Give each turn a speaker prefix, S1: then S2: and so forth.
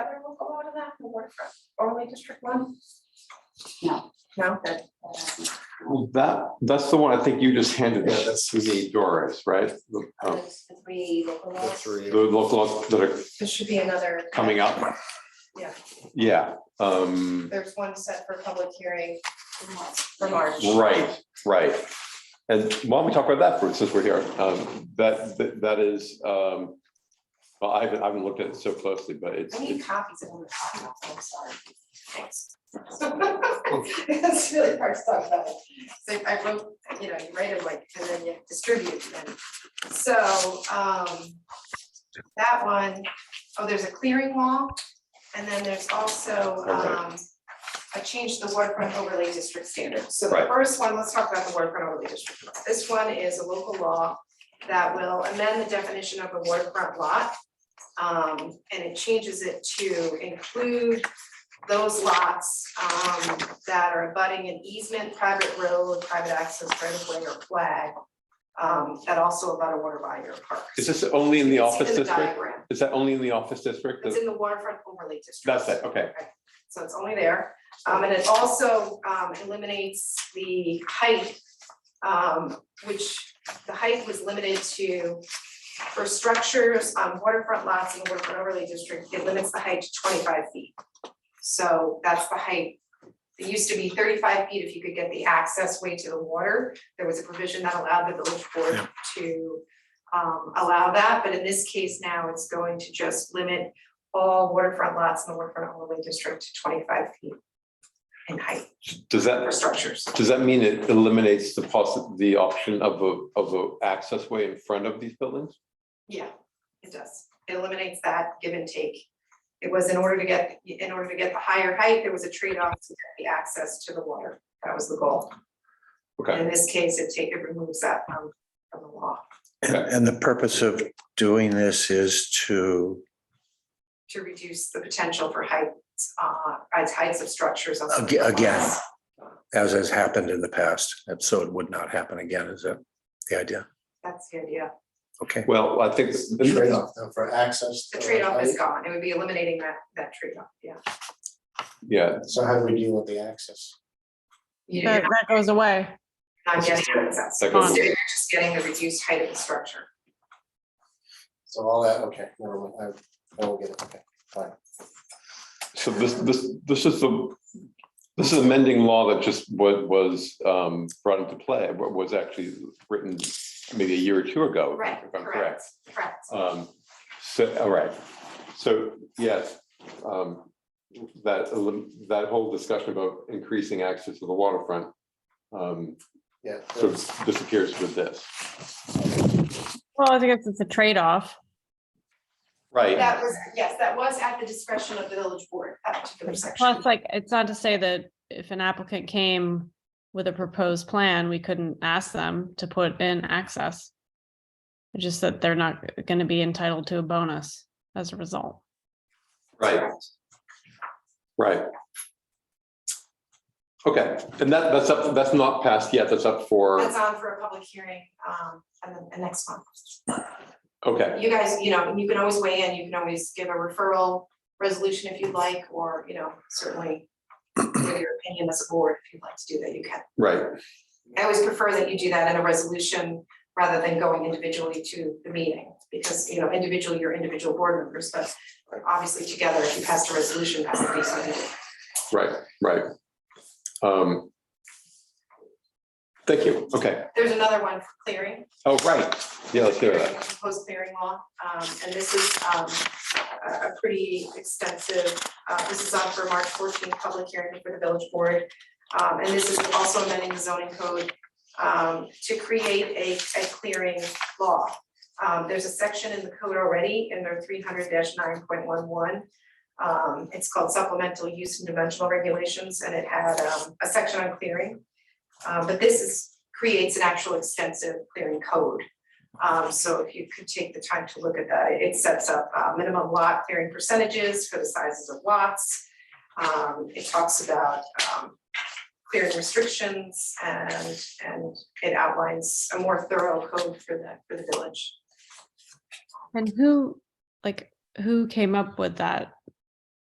S1: of that will work for only District One?
S2: No.
S1: No, that, uh,
S3: Well, that, that's the one I think you just handed us. That's you mean Doris, right? The oh,
S2: Those three local
S4: The
S2: laws.
S3: the
S4: three.
S3: local that are
S1: there should be another.
S3: coming up.
S1: Yeah.
S3: Yeah, um,
S1: There's one set for public hearing for March.
S3: right, right. And why don't we talk about that for, since we're here? Um, that, that- that is, um, well, I haven't, I haven't looked at it so closely, but it's,
S1: I need
S3: it's-
S1: copies of all the documents, I'm sorry. Thanks. It's really hard to talk about. So I wrote, you know, you write it like, and then you distribute them. So, um, that one, oh, there's a clearing wall. And then there's also, um,
S3: Alright.
S1: a change to the waterfront overlay district standard. So the
S3: Right.
S1: first one, let's talk about the waterfront overlay district. This one is a local law that will amend the definition of a waterfront lot. Um, and it changes it to include those lots, um, that are abutting an easement, private road, private access, right of way or flag. Um, that also about a water body or park.
S3: is this only in the
S1: It's
S3: office
S1: in the
S3: district?
S1: diagram.
S3: Is that only in the office district?
S1: It's in the waterfront overlay district.
S3: That's it, okay.
S1: So it's only there. Um, and it also, um, eliminates the height, um, which the height was limited to for structures on waterfront lots in the waterfront overlay district, it limits the height to twenty-five feet. So that's the height. It used to be thirty-five feet if you could get the access way to the water. There was a provision that allowed the village board to um, allow that, but in this case now it's going to just limit all waterfront lots in the waterfront overlay district to twenty-five feet in height
S3: Does that,
S1: for structures.
S3: Does that mean it eliminates the possi- the option of a, of a access way in front of these buildings?
S1: Yeah, it does. It eliminates that give and take. It was in order to get, in order to get the higher height, there was a trade-off to get the access to the water. That was the goal.
S3: Okay,
S1: In this case, it take, it removes that from, from the law
S5: And, and the purpose of doing this is to,
S1: to reduce the potential for heights, uh, as heights of structures on. some
S5: Aga- again.
S1: lots.
S5: as has happened in the past, and so it would not happen again, is that the idea?
S1: That's the idea.
S5: Okay,
S3: well, I think,
S4: It's the trade-off though for access.
S1: The trade-off is
S4: right?
S1: gone. It would be eliminating that, that trade-off, yeah.
S3: yeah,
S4: So how do we deal with the access?
S1: You-
S6: That, that goes away.
S1: Not getting access.
S3: That goes-
S1: Instead, you're just getting the reduced height of the structure.
S4: So all that, okay, never mind, I, I will get it, okay, fine.
S3: so this, this, this is the, this is amending law that just was, was um, brought into play, wa- was actually written maybe a year or two ago.
S1: Right,
S3: if I'm
S1: correct, correct.
S3: Um, so, all right, so, yes, um, that, elim- that whole discussion about increasing access to the waterfront um,
S4: Yeah,
S3: sort of disappears with this.
S6: Well, I guess it's a trade-off.
S3: Right.
S1: That was, yes, that was at the discretion of the village board, that particular section.
S6: Plus, like, it's not to say that if an applicant came with a proposed plan, we couldn't ask them to put in access. It's Just that they're not going to be entitled to a bonus as a result.
S3: Right, right. Okay, and that, that's up, that's not passed yet, that's up for,
S1: That's on for a public hearing, um, and then the next month.
S3: okay,
S1: You guys, you know, you can always weigh in, you can always give a referral resolution if you'd like, or, you know, certainly give your opinion as a board, if you'd like to do that, you can.
S3: right,
S1: I always prefer that you do that in a resolution rather than going individually to the meeting, because, you know, individually, you're individual board members, but obviously together, if you pass a resolution, that's the piece
S3: right, right. Um. Thank you, okay,
S1: There's another one for clearing.
S3: oh, right, yeah, let's hear that,
S1: Proposed clearing law, um, and this is, um, a, a pretty extensive, uh, this is on for March fourteenth, public hearing for the village board. Um, and this is also amending the zoning code, um, to create a, a clearing law. Um, there's a section in the code already, in their three hundred nine point one one. Um, it's called supplemental use and dimensional regulations, and it had, um, a section on clearing. Uh, but this is, creates an actual extensive clearing code. Um, so if you could take the time to look at that, it sets up uh, minimum lot clearing percentages for the sizes of lots. Um, it talks about um, clearing restrictions and, and it outlines a more thorough code for the, for the village.
S6: And who, like, who came up with that